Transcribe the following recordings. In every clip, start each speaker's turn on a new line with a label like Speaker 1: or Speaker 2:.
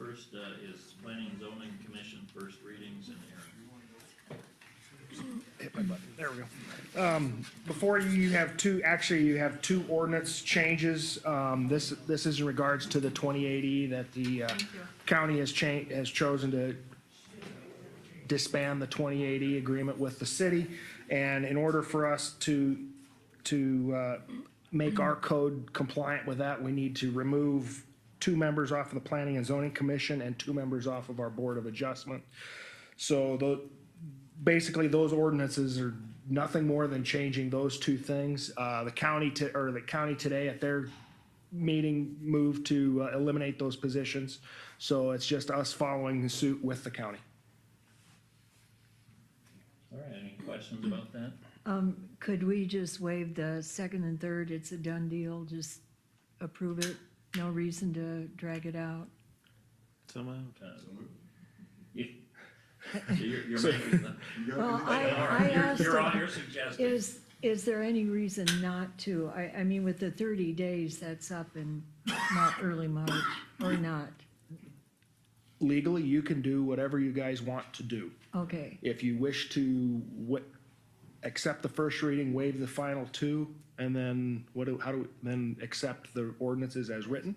Speaker 1: uh, is planning and zoning commission first readings and hearing.
Speaker 2: There we go. Um, before you, you have two, actually, you have two ordinance changes. Um, this, this is in regards to the twenty eighty that the, uh, county has cha, has chosen to disband the twenty eighty agreement with the city. And in order for us to, to, uh, make our code compliant with that, we need to remove two members off of the planning and zoning commission and two members off of our board of adjustment. So tho, basically, those ordinances are nothing more than changing those two things. Uh, the county to, or the county today at their meeting moved to uh, eliminate those positions. So it's just us following suit with the county.
Speaker 1: All right, any questions about that?
Speaker 3: Could we just waive the second and third? It's a done deal. Just approve it. No reason to drag it out.
Speaker 4: So moved.
Speaker 1: Uh, you- You're, you're making the.
Speaker 3: Well, I,
Speaker 1: All
Speaker 3: I
Speaker 1: right, you're-
Speaker 3: asked,
Speaker 1: You're on,
Speaker 3: them,
Speaker 1: you're suggesting.
Speaker 3: is, is there any reason not to? I, I mean, with the thirty days, that's up in not early March or not.
Speaker 2: Legally, you can do whatever you guys want to do.
Speaker 3: Okay,
Speaker 2: If you wish to wa- accept the first reading, waive the final two, and then what do, how do, we then accept the ordinances as written?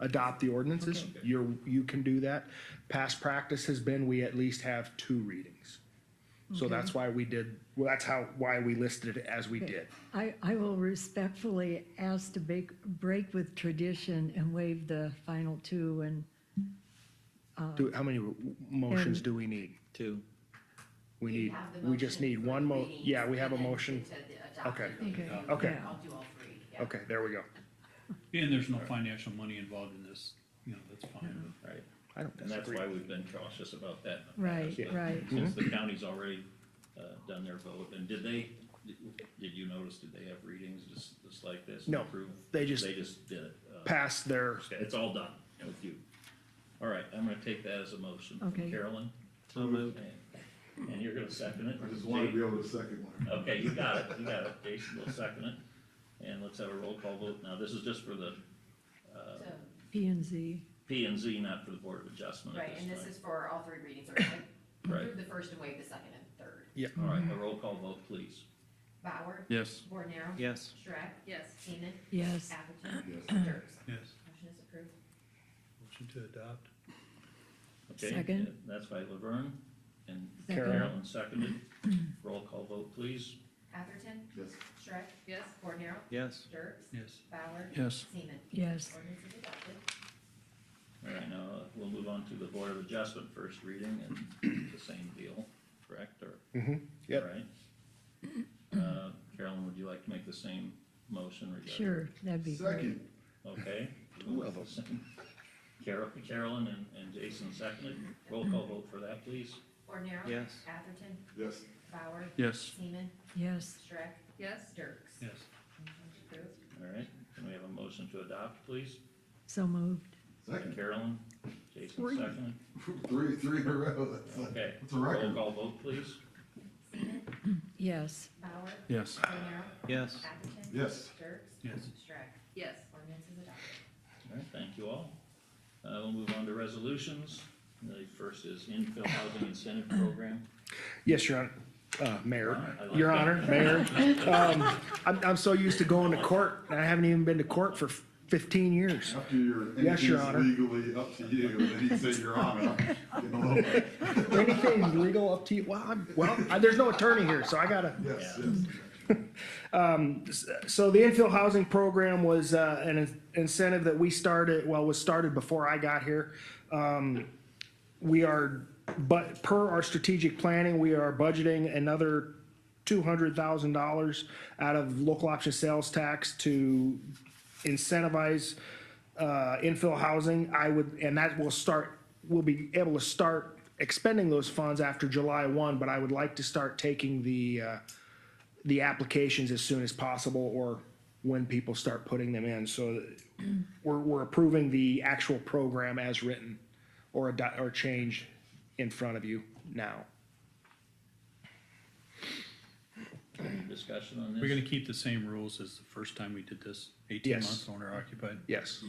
Speaker 2: Adopt the ordinances, you're, you can do that. Past practice has been, we at least have two readings. So that's why we did, well, that's how, why we listed it as we did.
Speaker 3: I, I will respectfully ask to bake, break with tradition and waive the final two and
Speaker 2: Do, how many motions do we need?
Speaker 4: Two.
Speaker 2: We
Speaker 5: You
Speaker 2: need,
Speaker 5: have the
Speaker 2: we just
Speaker 5: motion
Speaker 2: need
Speaker 5: for
Speaker 2: one mo,
Speaker 5: reading,
Speaker 2: yeah, we have a
Speaker 5: and then
Speaker 2: motion.
Speaker 5: to the adopted
Speaker 2: Okay.
Speaker 5: reading.
Speaker 3: Okay.
Speaker 2: Okay.
Speaker 3: Yeah.
Speaker 5: I'll do all three, yeah.
Speaker 2: Okay, there we go.
Speaker 6: And there's no financial money involved in this, you know, that's fine.
Speaker 1: Right,
Speaker 2: I don't
Speaker 1: and that's
Speaker 2: disagree.
Speaker 1: why we've been cautious about that. in the
Speaker 3: Right,
Speaker 1: past, but
Speaker 3: right.
Speaker 1: Since
Speaker 2: Mm-hmm.
Speaker 1: the county's already, uh, done their vote, and did they, did you notice, did they have readings just, just like this? and
Speaker 2: No,
Speaker 1: approve?
Speaker 2: they just-
Speaker 1: They just did it. uh,
Speaker 2: Pass their,
Speaker 1: Okay, it's all done with you. All right, I'm gonna take that as a motion from
Speaker 3: Okay.
Speaker 1: Carolyn.
Speaker 4: So moved.
Speaker 1: And- And you're gonna second it?
Speaker 7: I just wanted to be able to second one.
Speaker 1: Okay, you got it, you got it, Jason will second it, and let's have a roll call vote. Now, this is just for the uh,
Speaker 5: So,
Speaker 3: P and Z.
Speaker 1: P and Z, not for the Board of Adjustment at
Speaker 5: Right, and
Speaker 1: this
Speaker 5: this
Speaker 1: time.
Speaker 5: is for all three readings, right?
Speaker 1: Right.
Speaker 5: Approve the first and waive the second and third.
Speaker 1: All right, a roll call vote, please.
Speaker 5: Bauer?
Speaker 4: Yes.
Speaker 5: Bornero?
Speaker 4: Yes.
Speaker 5: Shrek? Yes. Seaman?
Speaker 3: Yes.
Speaker 5: Atherton?
Speaker 7: Yes.
Speaker 5: Dirks?
Speaker 6: Yes.
Speaker 5: Motion is approved.
Speaker 6: Motion to adopt?
Speaker 1: Okay,
Speaker 3: Second.
Speaker 1: uh, That's by Laverne and
Speaker 3: Second.
Speaker 1: Carolyn seconded. Roll call vote, please.
Speaker 5: Atherton?
Speaker 7: Yes,
Speaker 5: Shrek? Yes. Bornero?
Speaker 4: Yes.
Speaker 5: Dirks?
Speaker 6: Yes.
Speaker 5: Bauer?
Speaker 6: Yes.
Speaker 5: Seaman?
Speaker 3: Yes.
Speaker 5: Ordinance is adopted.
Speaker 1: All right, now, uh, we'll move on to the Board of Adjustment first reading and the same deal, correct, or?
Speaker 2: Yep.
Speaker 1: All right. Uh, Carolyn, would you like to make the same motion regarding?
Speaker 3: Sure, that'd be great.
Speaker 7: second,
Speaker 1: Okay. Carol, Carolyn and, and Jason seconded. Roll call vote for that, please.
Speaker 5: Bornero?
Speaker 4: Yes.
Speaker 5: Atherton?
Speaker 7: yes,
Speaker 5: Bauer?
Speaker 6: Yes.
Speaker 5: Seaman?
Speaker 3: Yes,
Speaker 5: Shrek? Yes. Dirks?
Speaker 6: Yes.
Speaker 5: Motion is approved.
Speaker 1: All right, can we have a motion to adopt, please?
Speaker 3: so moved.
Speaker 7: second,
Speaker 1: Carolyn, Jason seconded.
Speaker 7: three, three in a row, that's like,
Speaker 1: Okay.
Speaker 7: that's a
Speaker 1: Roll
Speaker 7: record.
Speaker 1: call vote, please.
Speaker 3: Yes,
Speaker 5: Bauer?
Speaker 6: Yes.
Speaker 5: Bornero?
Speaker 4: Yes.
Speaker 5: Atherton?
Speaker 7: Yes.
Speaker 5: Dirks?
Speaker 6: Yes.
Speaker 5: Shrek? Yes. Ordinance is adopted.
Speaker 1: All right, thank you all. Uh, we'll move on to resolutions. The first is infill housing incentive program.
Speaker 2: yes, Your Honor, uh, Mayor,
Speaker 1: I like
Speaker 2: Your
Speaker 1: that.
Speaker 2: Honor, Mayor. Um, I'm, I'm so used to going to court, and I haven't even been to court for fifteen years.
Speaker 7: After you're,
Speaker 2: Yes, Your Honor.
Speaker 7: anything's legally up to you, and then you say you're on it, I'm getting a little, yes,
Speaker 2: Anything legal up to you, well, I'm, well, I- there's no attorney here, so I gotta.
Speaker 7: yes.
Speaker 2: so the infill housing program was uh, an in- incentive that we started, well, was started before I got here. Um, We are, but per our strategic planning, we are budgeting another two hundred thousand dollars out of local option sales tax to incentivize uh, infill housing. I would, and that will start, we'll be able to start expending those funds after July one, but I would like to start taking the uh, the applications as soon as possible or when people start putting them in. So we're, we're approving the actual program as written or a, di- or change in front of you now.
Speaker 1: Any discussion on this?
Speaker 6: We're gonna keep the same rules as the first time we did this, eighteen
Speaker 2: Yes.
Speaker 6: months owner occupied.
Speaker 2: Yes.